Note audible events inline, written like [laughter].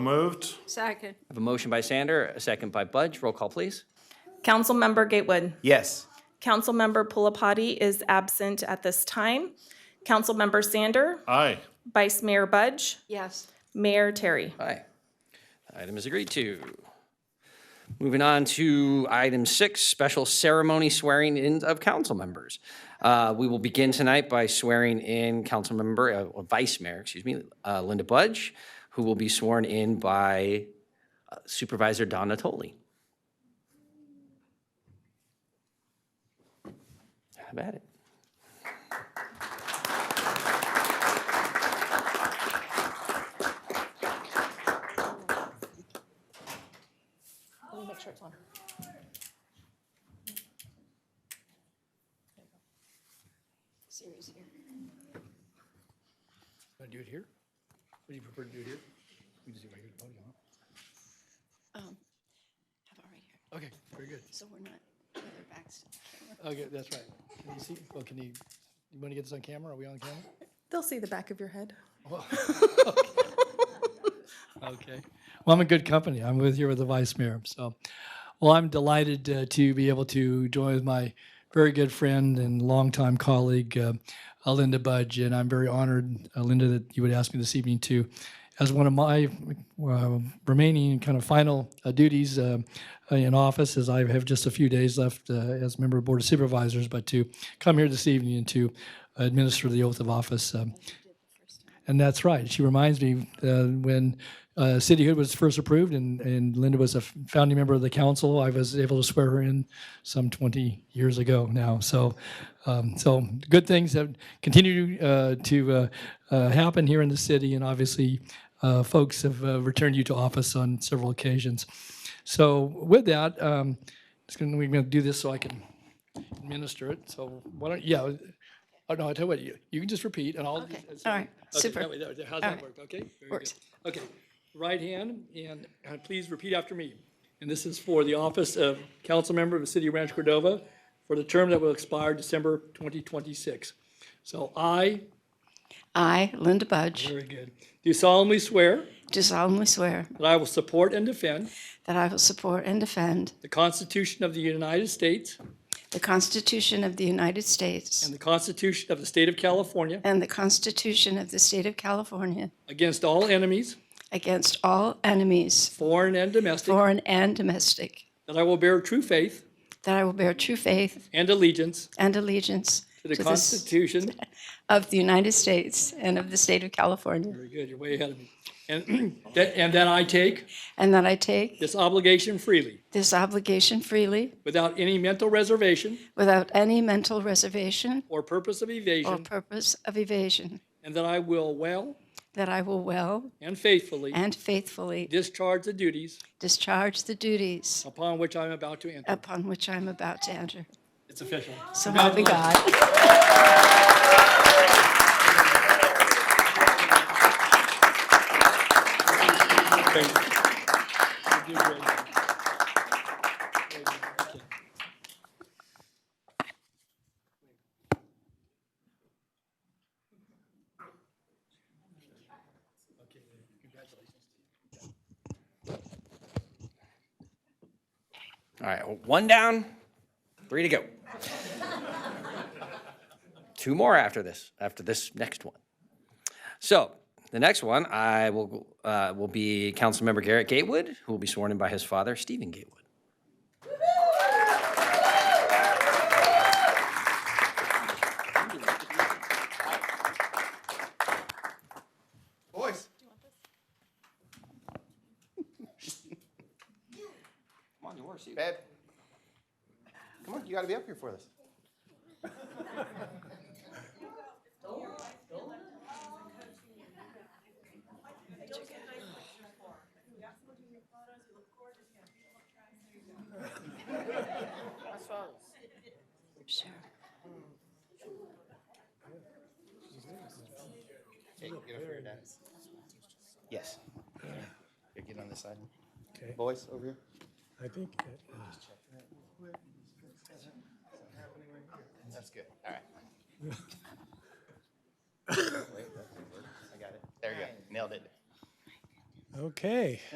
Moved. Second. I have a motion by Sander, a second by Budge. Roll call, please. Councilmember Gatewood. Yes. Councilmember Pulapati is absent at this time. Councilmember Sander, Aye. Vice Mayor Budge, Yes. Mayor Terry. Aye. Item is agreed to. Moving on to item six, special ceremony swearing in of council members. Uh, We will begin tonight by swearing in council member, uh, or Vice Mayor, excuse me, uh, Linda Budge, who will be sworn in by uh, Supervisor Don Natoli. Have at it. Series here. Want to do it here? Would you prefer to do it here? We can just do it right here at the podium, Have it right here, huh? Okay, very good. so we're not, with our backs. Okay, that's right. Can you see, well, can you, you want to get this on camera? Are we on camera? They'll see the back of your head. Okay. Well, I'm in good company. I'm with here with the vice mayor, so. Well, I'm delighted uh, to be able to join with my very good friend and longtime colleague, uh, uh, Linda Budge, and I'm very honored, uh, Linda, that you would ask me this evening to, as one of my uh, remaining kind of final uh, duties uh, in office, as I have just a few days left uh, as member of Board of Supervisors, but to come here this evening and to administer the oath of office. um, and that's right. She reminds me uh, when uh, cityhood was first approved, and, and Linda was a f- founding member of the council. I was able to swear her in some 20 years ago now. So, um, so good things have continued uh, to uh, uh, happen here in the city, and obviously, uh, folks have uh, returned you to office on several occasions. So, with that, um, just gonna, we're going to do this so I can administer it. So, why don't yeah? Oh no, I tell you what, you, you can just repeat, and I'll. Okay, just- all right, Okay, super. that way- that way- How's All that right. work, okay? Very good. Works. Okay, right hand, and uh, please repeat after me. And this is for the office of council member of the city of Rancho Cordova for the term that will expire December 2026. So I, I, Linda Budge, very good, do solemnly swear do solemnly swear that I will support and defend that I will support and defend the Constitution of the United States the Constitution of the United States and the Constitution of the state of California and the Constitution of the State of California against all enemies, against all enemies, foreign and domestic, foreign and domestic, that I will bear true faith that I will bear true faith and allegiance and allegiance to the s- Constitution of the United States and of the State of California, Very good, you're way ahead of me. And [clears throat] that, and that I take and that I take this obligation freely, this obligation freely without any mental reservation without any mental reservation or purpose of or evasion, purpose of evasion, and that I will well that I will well and faithfully and faithfully discharge the duties discharge the duties upon which I'm about to enter. upon which I am about to enter. It's official. So help me God. Thank you. You did great. Great, thank you. All right, one down, three to go. Two more after this, after this next one. So the next one I will uh, will be Councilmember Garrett Gatewood, who will be sworn in by his father, Stephen Gatewood. Boys. Come on, yours. Babe. Come on, you gotta be up here for this. Sure. Hey, get up here, Dad. Yes. Here, get on this side. Okay. Boys, over here. I think that, uh, That's good, all right. Wait, that didn't work. I got it. There you go, nailed it. oh, Okay.